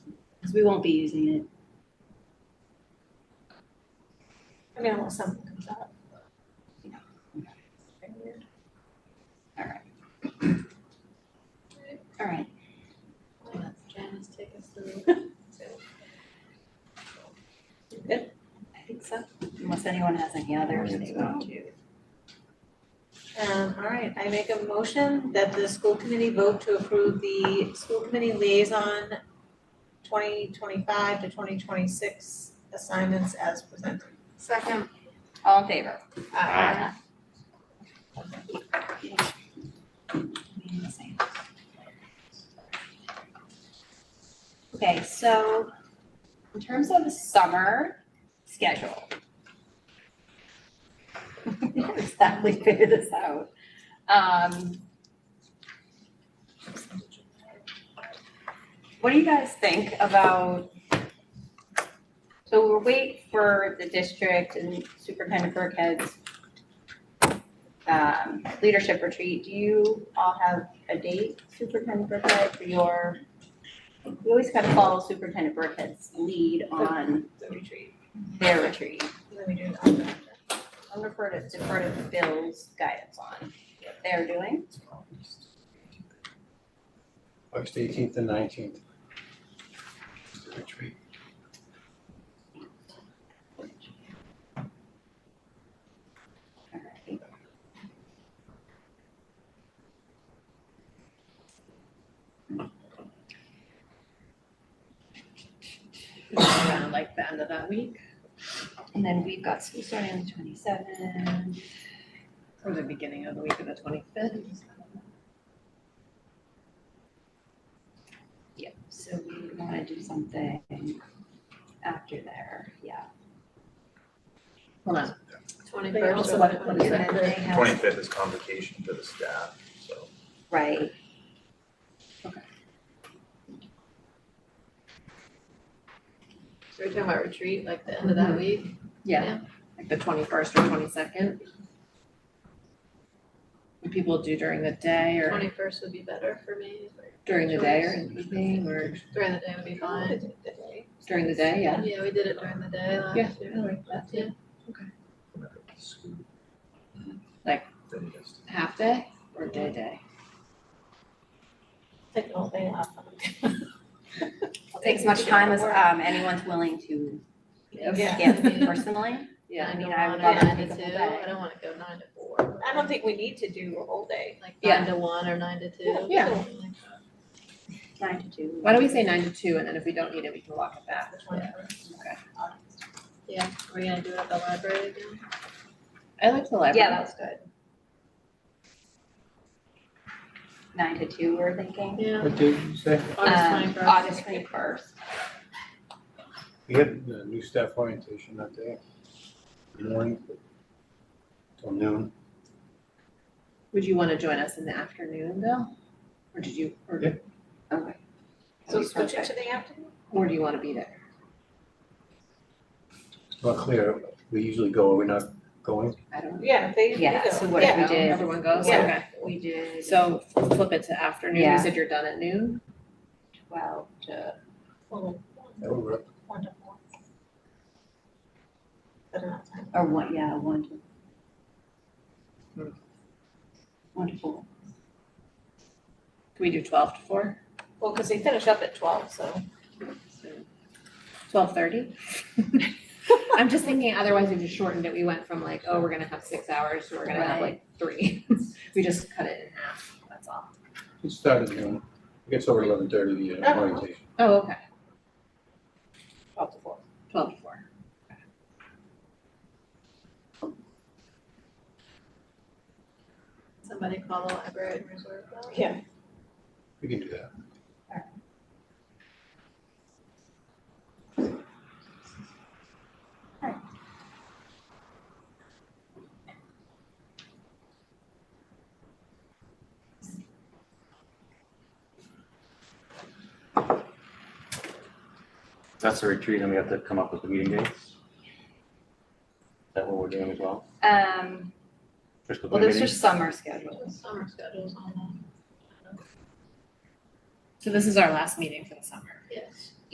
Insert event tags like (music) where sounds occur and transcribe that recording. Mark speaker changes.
Speaker 1: because we won't be using it.
Speaker 2: I mean, unless something comes up.
Speaker 1: Yeah.
Speaker 2: Very weird.
Speaker 1: All right,
Speaker 2: I'll let Janice take us through.
Speaker 1: I think so, unless anyone has any others they want to.
Speaker 2: Um, all right, I make a motion that the school committee vote to approve the school committee liaison twenty twenty-five to twenty twenty-six assignments as presented.
Speaker 3: Second.
Speaker 1: All in favor?
Speaker 3: Aye.
Speaker 1: Okay, so in terms of the summer schedule. (laughs) I didn't Exactly figure this out. Um. What do you guys think about? So we'll wait for the district and Superintendent Burkhead's um, leadership retreat, do you all have a date, Superintendent Burkhead, for your? We always kind of follow Superintendent Burkhead's lead on
Speaker 2: The retreat,
Speaker 1: their retreat.
Speaker 2: and then we do the other.
Speaker 1: I'll refer to, defer to Bill's guidance on what they're doing.
Speaker 4: August eighteenth and nineteenth.
Speaker 3: Around like the end of that week
Speaker 1: And then we've got school starting on the twenty-seventh.
Speaker 3: or the beginning of the week of the twenty-fifth.
Speaker 1: Yep, so we wanna do something after there, yeah.
Speaker 3: Hold on.
Speaker 2: Twenty-first.
Speaker 3: also
Speaker 2: or
Speaker 3: want to put
Speaker 1: And
Speaker 3: it
Speaker 1: then they have-
Speaker 5: Twenty-fifth is convocation for the staff, so
Speaker 1: Right.
Speaker 3: So we're talking about retreat, like the end of that week? Yeah. Like the twenty-first or twenty-second? What people do during the day or
Speaker 2: Twenty-first would be better for me, but
Speaker 3: during the day or in the evening or
Speaker 2: during the day would be fine.
Speaker 3: during the day, yeah?
Speaker 2: Yeah, we did it during the day last year.
Speaker 3: I like that.
Speaker 2: Yeah.
Speaker 5: I'm gonna go to school.
Speaker 3: Like-
Speaker 5: Then you guys-
Speaker 3: Half day or day day?
Speaker 2: Take the whole thing off.
Speaker 1: It'll Take as much time as, um, anyone's willing to
Speaker 2: Yeah.
Speaker 1: give personally.
Speaker 3: Yeah,
Speaker 1: I mean, I would
Speaker 2: Nine
Speaker 1: love
Speaker 2: to
Speaker 1: to take
Speaker 2: one, nine
Speaker 1: the
Speaker 2: to
Speaker 1: whole
Speaker 2: two,
Speaker 1: day.
Speaker 2: I don't wanna go nine to four. I don't think we need to do a whole day, like
Speaker 3: Yeah.
Speaker 2: nine to one or nine to two.
Speaker 3: Yeah.
Speaker 2: something like
Speaker 1: Nine to two.
Speaker 3: why don't we say nine to two and then if we don't need it, we can walk it back.
Speaker 2: that, the 21st.
Speaker 3: Okay.
Speaker 2: Yeah, we're gonna do it at the library again.
Speaker 3: I like the library.
Speaker 1: Yeah, that was good. Nine to two, we're thinking.
Speaker 2: Yeah.
Speaker 4: What did you say?
Speaker 2: August
Speaker 1: Um,
Speaker 2: twenty-first.
Speaker 1: August twenty-first.
Speaker 4: We had the new staff orientation that day. Morning till noon.
Speaker 3: Would you wanna join us in the afternoon though? Or did you, or,
Speaker 4: Yeah.
Speaker 1: Okay.
Speaker 2: So switch it to the afternoon?
Speaker 3: or do you wanna be there?
Speaker 4: It's not clear. We usually go, we're not going.
Speaker 3: I don't know.
Speaker 2: Yeah, they,
Speaker 1: Yeah, so what if we
Speaker 3: No,
Speaker 1: did-
Speaker 3: Everyone goes,
Speaker 2: Yeah.
Speaker 3: okay.
Speaker 1: We did
Speaker 3: So flip it to afternoon,
Speaker 1: Yeah.
Speaker 3: you said you're done at noon?
Speaker 1: twelve to,
Speaker 4: That would work.
Speaker 2: One to four. But not time.
Speaker 1: or one, yeah, one
Speaker 2: Hmm.
Speaker 1: to. One to four.
Speaker 3: Can we do twelve to four?
Speaker 2: Well, cause they finish up at twelve, so.
Speaker 3: Twelve (laughs) thirty? I'm just thinking, otherwise if you shortened it, we went from like, oh, we're gonna have six hours, to we're gonna have like three. (laughs) We just cut it in half, that's all.
Speaker 4: It started noon. It gets over eleven thirty, the uh,
Speaker 2: Oh.
Speaker 4: orientation.
Speaker 3: Oh, okay,
Speaker 2: Twelve to four.
Speaker 3: twelve to four.
Speaker 2: Somebody call the library and reserve that? Yeah.
Speaker 4: We can do that.
Speaker 6: That's a retreat, and we have to come up with the meeting dates. Is that what we're doing as well?
Speaker 1: Um,
Speaker 6: Fiscal
Speaker 1: well,
Speaker 6: committee
Speaker 1: those are summer schedules.
Speaker 2: Summer schedules on
Speaker 3: So this is our last meeting for the summer.
Speaker 2: that. Yes.